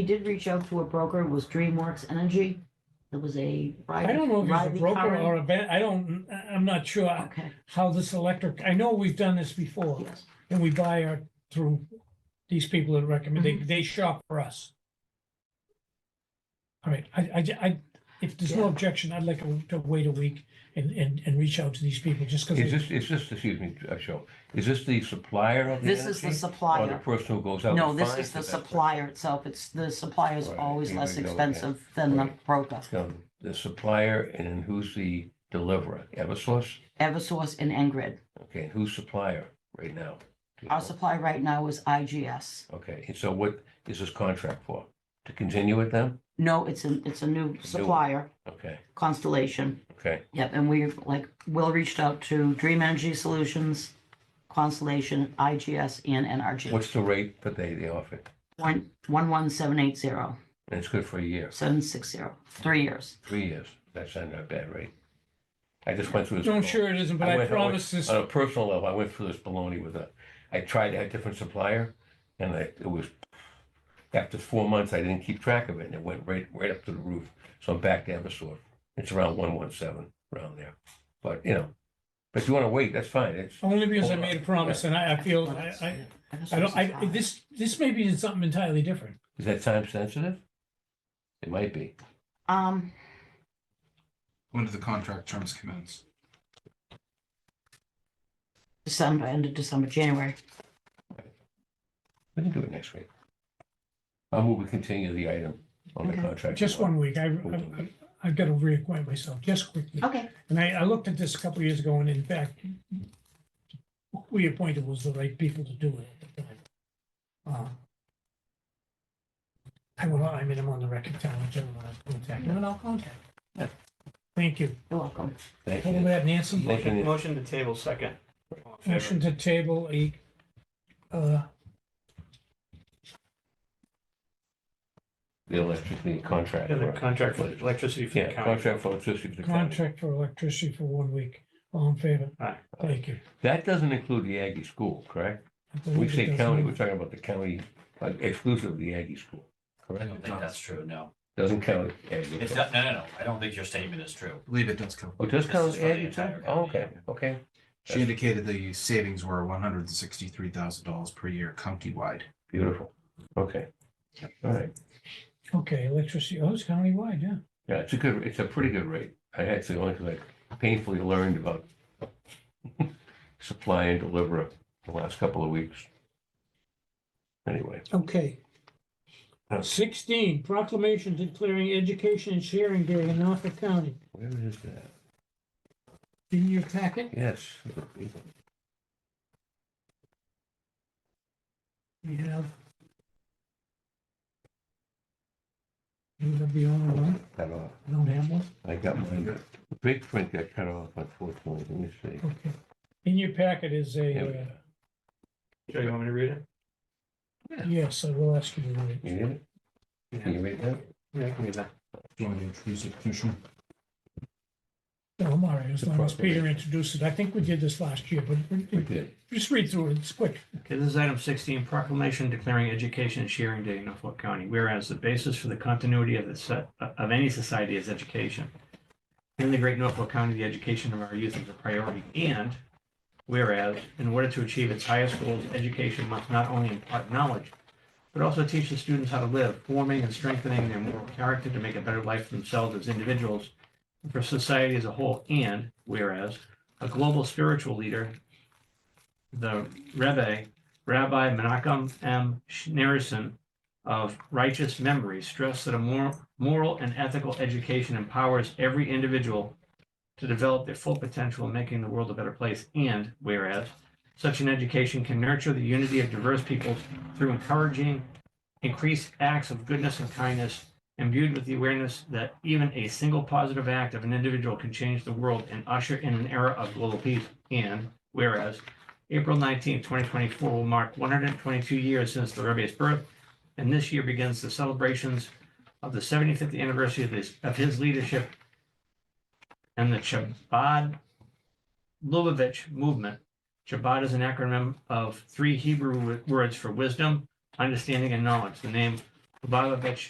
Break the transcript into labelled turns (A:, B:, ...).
A: We did reach out to a broker, it was DreamWorks Energy. It was a.
B: I don't know if it's a
A: Riley
B: broker
A: Curran.
B: or a bet, I don't, I'm not sure
A: Okay,
B: how this electric, I know we've done this before,
A: yes.
B: and we buy our, through these people that recommend, they, they shop for us. All right, I, I, I- if there's no
A: Yeah.
B: objection, I'd like to wait a week and, and, and reach out to these people, just
C: Is
B: because.
C: this, is this, excuse me, uh, Cheryl, is this the supplier of the
A: This is the
C: energy? Or the
A: supplier.
C: person who goes out?
A: No,
C: and
A: this is
C: finds
A: Oh, the
C: best person?
A: supplier itself. It's, the supplier's
C: Right,
A: always
C: you
A: less
C: don't know that.
A: expensive than the
C: Right.
A: broker.
C: Um, The supplier and then who's the deliverer? Eversource?
A: Eversource and Engrid.
C: Okay, and who's supplier right now? Do you
A: Our
C: know?
A: supply right now is IGS.
C: Okay, and so what is this contract for? To continue with them?
A: No, it's a, it's a new supplier,
C: Okay,
A: Constellation.
C: okay,
A: Yep, and we've, like, Will reached out to Dream Energy Solutions, Constellation, IGS, and NRG.
C: what's the rate that they, they offer?
A: One, one, one, seven, eight, zero,
C: And it's good for a year,
A: seven, six, zero, three years.
C: three years, that's not a bad rate. I just went through this.
B: I'm
C: before.
B: sure it isn't, but
C: I Uh,
B: I
C: went- I went-
B: promise this,
C: on a personal level, I went through this baloney with a, I tried a different supplier, and I, it was, after four months, I didn't keep track of it, and it went right, right up to the roof, so I'm back to Eversource. It's around one one seven, around there, but, you know, but if you wanna wait, that's fine, it's,
B: only because I
C: Hold on.
B: made a promise, and I, I feel, I, I, I don't, I, this, this may be something entirely different.
C: is that time sensitive? It might be,
A: Um,
D: When do the contract terms commence?
A: December, end of December, January.
C: we can do it next week. I will, we continue the item on the
A: Okay.
C: contract.
B: Just one week, I, I, I've got to reacquaint myself, just quickly.
A: Okay.
B: And I, I looked at this a couple of years ago, and in fact, who we appointed was the right people to do it at the time. Uh, I will, I mean, I'm on the record telling everyone I'll contact, them, and I'll contact. them. Thank you.
A: You're welcome.
C: Thank
B: Hold
C: you.
B: that, Nancy.
C: Thank you.
E: Motion motion to table second. All in favor?
B: Motion to table a, uh,
C: The electric, the contract.
E: And the
C: right.
E: contract for electricity for the
C: Yeah,
E: county.
C: contract for electricity. for the county.
B: contract for electricity for one week. All in favor?
E: Aye.
B: Thank you.
C: That doesn't include the Aggie school, correct?
B: I
C: We
B: believe it
C: say
B: does.
C: county, we're talking about the county, like exclusive of the Aggie school,
F: I
C: correct?
F: don't think that's true, no.
C: Doesn't count. Aggie.
F: It's not, no, no, no, I don't think your statement is true.
D: I believe it does cover.
C: Oh, does
F: This
C: count
F: is for the
C: Aggie too?
F: entire
C: Oh,
F: county,
C: okay, okay.
D: She indicated the savings were one hundred and sixty-three thousand dollars per year countywide.
C: Beautiful. Okay. All right.
B: Okay, electricity, oh, it's countywide, yeah.
C: Yeah, it's a good, it's a pretty good rate. I actually only like painfully learned about supply and deliver the last couple of weeks. Anyway,
B: Okay.
C: Okay.
B: Uh, Sixteen, proclamation declaring education and sharing day in Norfolk County.
C: where is that?
B: In your packet?
C: Yes.
B: We have. You have the only one?
C: Cut off.
B: I don't have one?
C: I got mine. The big print got cut off unfortunately. Let me see.
B: Okay. In your packet is
C: Yeah,
B: a,
C: we-
E: Joe, you want me to read it?
B: uh, yes, I will ask you to read.
C: You need it? Can you read that?
E: Yeah, I can read that.
D: Do you want to introduce it, Commissioner?
B: No, I'm all right, as
C: The
B: long as
C: proclamation.
B: Peter introduced it. I think we did this last year, but
C: We
B: but
C: did.
B: just read through it, it's quick.
E: Okay, this is item sixteen, proclamation declaring education and sharing day in Norfolk County, whereas the basis for the continuity of the set, of any society is education. In the great Norfolk County, the education of our youth is a priority, and whereas, in order to achieve its highest goals, education must not only impart knowledge, but also teach the students how to live, forming and strengthening their moral character to make a better life for themselves as individuals and for society as a whole, and whereas, a global spiritual leader, the Rebbe Rabbi Menachem M. Schneerson of Righteous Memory stressed that a moral, moral and ethical education empowers every individual to develop their full potential in making the world a better place. And whereas such an education can nurture the unity of diverse peoples through encouraging increased acts of goodness and kindness, imbued with the awareness that even a single positive act of an individual can change the world and usher in an era of global peace. And whereas April 19, 2024 will mark 122 years since the Rebbe's birth, and this year begins the celebrations of the 75th anniversary of his, of his leadership and the Chabad Lubavitch movement. Chabad is an acronym of three Hebrew wo- words for wisdom, understanding, and knowledge. The name Lubavitch